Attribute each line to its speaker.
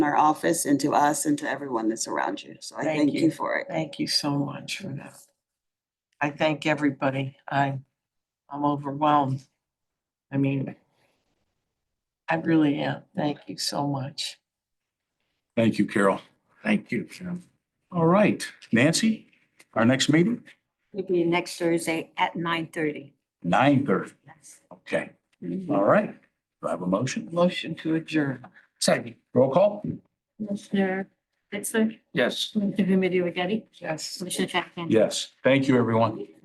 Speaker 1: our office and to us and to everyone that's around you. So I
Speaker 2: Thank
Speaker 1: thank you
Speaker 2: you.
Speaker 1: for it.
Speaker 2: Thank you so much for that. I thank everybody. I, I'm overwhelmed. I mean, I really am. Thank you so much.
Speaker 3: Thank you, Carol. Thank you, Jim. All right, Nancy, our next meeting,
Speaker 4: It'll be next Thursday at nine thirty.
Speaker 3: nine thirty. Okay, all right. Do I have a motion?
Speaker 2: Motion to adjourn.
Speaker 3: Second. Roll call?
Speaker 4: Commissioner Spitzler,
Speaker 3: Yes.
Speaker 4: Commissioner Remedy Agati,
Speaker 2: Yes.
Speaker 4: Commissioner Traficant.
Speaker 3: Yes. Thank you, everyone.